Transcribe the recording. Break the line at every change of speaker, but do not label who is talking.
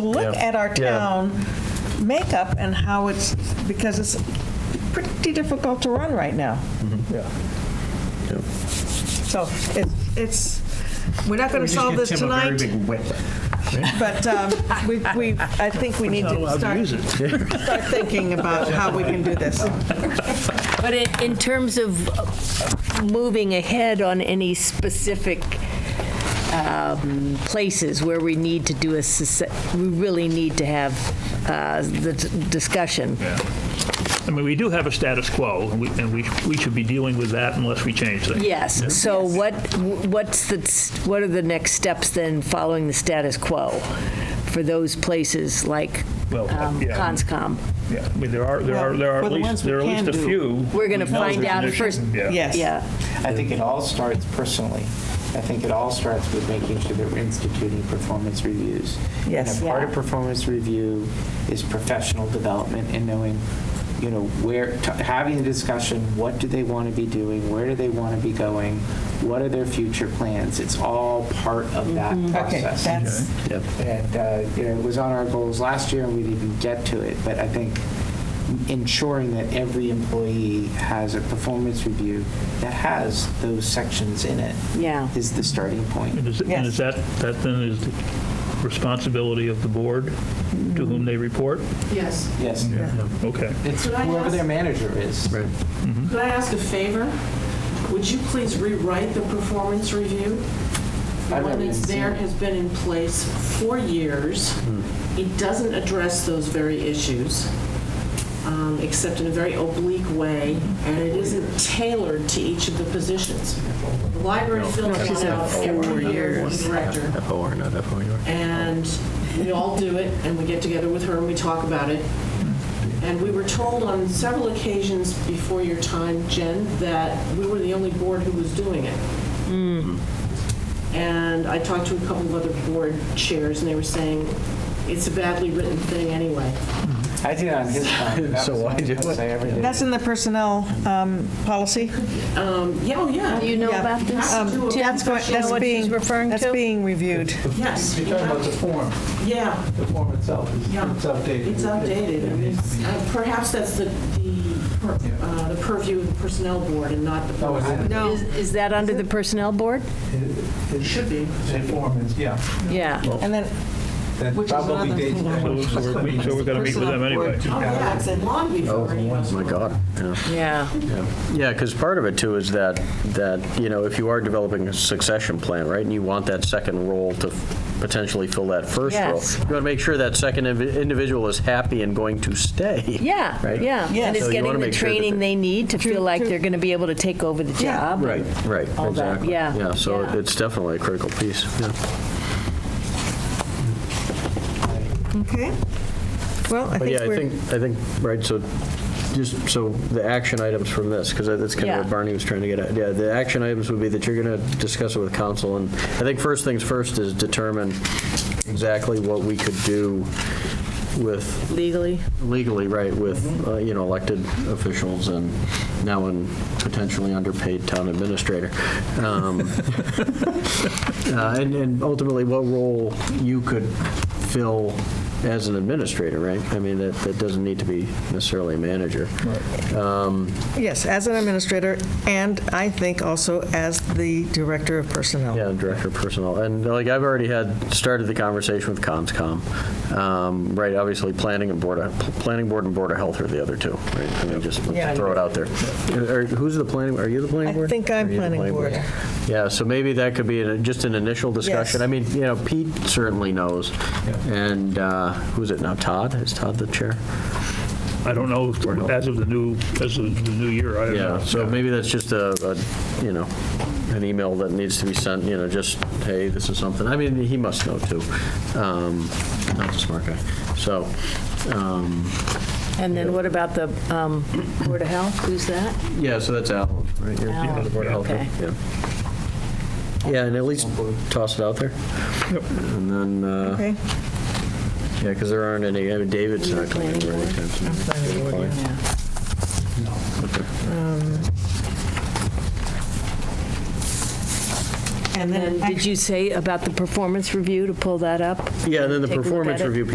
look
Yeah.
at our
Yeah.
town makeup and how it's, because it's pretty difficult to run right now.
Mm-hmm.
Yeah.
So it- it's, we're not going to
just
solve
give
this
Tim a very
tonight,
big whip.
but um, we, we, I think we need
Not
to
allowed to
start,
use it.
start thinking about how we can do this.
But in, in terms of uh, moving ahead on any specific um, places where we need to do a, sus- we really need to have uh, the d- discussion.
I mean, we do have a status quo, and we, and we we should be dealing with that unless we change things.
Yes, so what, what's the, s- what are the next steps then following the status quo for those places like
Well, uh,
um,
yeah.
Conscom?
Yeah, I mean, there are, there are, there are
Well,
at
for the ones
least,
we
there are at
can
least a
do.
few.
We're gonna
we know
find
there's
out
an issue.
first-
Yeah.
Yes.
Yeah,
I think it all starts personally. I think it all starts with making sure that we're instituting performance reviews.
Yes.
And a part
Yeah.
of performance review is professional development and knowing, you know, where, t- having a discussion, what do they want to be doing? Where do they want to be going? What are their future plans? It's all part of that
Mm-hmm. Okay,
process.
that's,
And, uh, you know, it was on our goals last year, and we didn't get to it, but I think ensuring that every employee has a performance review that has those sections in it
yeah.
is the starting point.
And is, and is that, that then is the responsibility of the board to whom they report?
Yes.
Yes.
Okay.
It's
Could I
whoever their
ask-
manager is. Right.
Could I ask a favor? Would you please rewrite the performance review? The
I've never
one
even
that's
seen
there
it. Hmm.
has been in place for years. It doesn't address those very issues, um, except in a very oblique way, and it isn't tailored to each of the positions. The library fills one out every year, the director.
FOR, not FOUR.
and we all do it, and we get together with her and we talk about it. And we were told on several occasions before your time, Jen, that we were the only board who was doing it.
Hmm.
And I talked to a couple of other board chairs, and they were saying, it's a badly written thing anyway.
I did it on his time.
So why do it?
I ever did.
that's in the personnel um, policy.
Um, Yeah, oh, yeah.
Do you know
Yeah.
about this?
Um,
Do you
That's, going-
know
that's
what she's
being,
referring
that's
to?
being reviewed.
Yes.
You're talking about the form,
Yeah,
the form itself, is-
Yeah.
it's outdated.
it's outdated.
It needs to be-
Uh, Perhaps that's the, the per- uh, the purview of the personnel board and not the.
No, Oh, it
board.
isn't.
Is, is that under the personnel board?
It-
It should be.
It's a form, it's, yeah.
Yeah.
And then
That
Which is
probably
another
dates
form.
back.
So so we're, we- so we're gonna meet with them anyway.
Oh, yeah, it's long before. any of us
Oh, My
were.
God. yeah.
Yeah.
Yeah, because part of it too is that, that, you know, if you are developing a succession plan, right, and you want that second role to potentially fill that first role,
Yes.
you want to make sure that second invi- individual is happy and going to stay.
Yeah,
Right?
yeah.
Yeah.
And it's
So you
getting
wanna
the
make sure that
training they need to feel like they're going to be able to take over the
Yeah.
job.
Right, right,
All that,
exactly.
yeah.
Yeah, so
Yeah.
it's definitely a critical piece, yeah.
Okay. Well, I
But
think
yeah, I
we're,
think, I think, right, so, just, so the action items from this, because that's kind of
Yeah.
what Barney was trying to get at. Yeah, the action items would be that you're going to discuss it with council, and I think first things first is determine exactly what we could do with,
Legally.
legally, right, with, uh, you know, elected officials and now an potentially underpaid town administrator. Um, uh, And and ultimately, what role you could fill as an administrator, right? I mean, that that doesn't need to be necessarily a manager.
yes, as an administrator, and I think also as the director of personnel.
Yeah, director of personnel. And like, I've already had, started the conversation with CONSCOM, um, right? Obviously, planning and board, of- planning board and board of health are the other two, right? I mean, just
Yeah.
throw it out there. Are- Who's the planning, are you the planning
I
board?
think I'm
Are you the
planning board.
Yeah, so maybe that could be an- just an initial discussion.
Yes.
I mean, you know, Pete certainly knows. And uh, who's it now, Todd? Is Todd the chair?
I don't know, if- as of the new, as of the new year, I don't know.
Yeah, so maybe that's just a, a, you know, an email that needs to be sent, you know, just, hey, this is something, I mean, he must know too. Um, Not a smart guy, so, um,
And then what about the um, Board of Health? Who's that?
yeah, so that's Alan, right? You're- you're on the board of health,
Okay.
yeah. Yeah, and at least toss it out there. And then, uh,
Okay,
yeah, because there aren't any, I mean, David's not coming over anytime soon.
and
And
then.
did you say about the performance review to pull that up?
Yeah, and then the
Take a look at
performance
it?
review